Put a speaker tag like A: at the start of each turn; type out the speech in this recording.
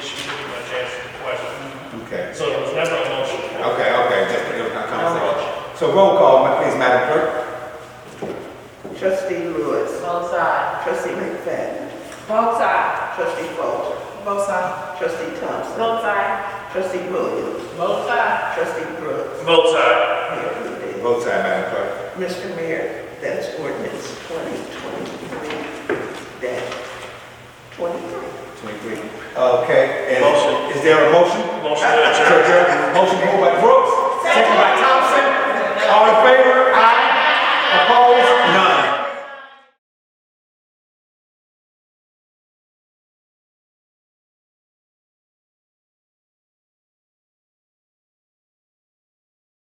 A: Okay,
B: So it was never a motion.
A: okay, okay, just, it was not conversation. So roll call, ma- please, Madam Clerk.
C: Trustee Lewis.
D: Both sides.
C: Trustee McFadden.
D: Both sides.
C: Trustee Folger.
D: Both sides.
C: Trustee Thompson.
D: Both sides.
C: Trustee Williams.
D: Both sides.
C: Trustee Brooks.
B: Both sides.
C: Mayor Rudy.
A: Vote side, Madam Clerk.
C: Mr. Mayor, that's ordinance twenty twenty-three dash twenty-three.
A: Twenty-three. Okay, and
B: Motion.
A: is there a motion?
B: Motion to adjourn.
A: Sir, Jerry, Motion moved by Brooks.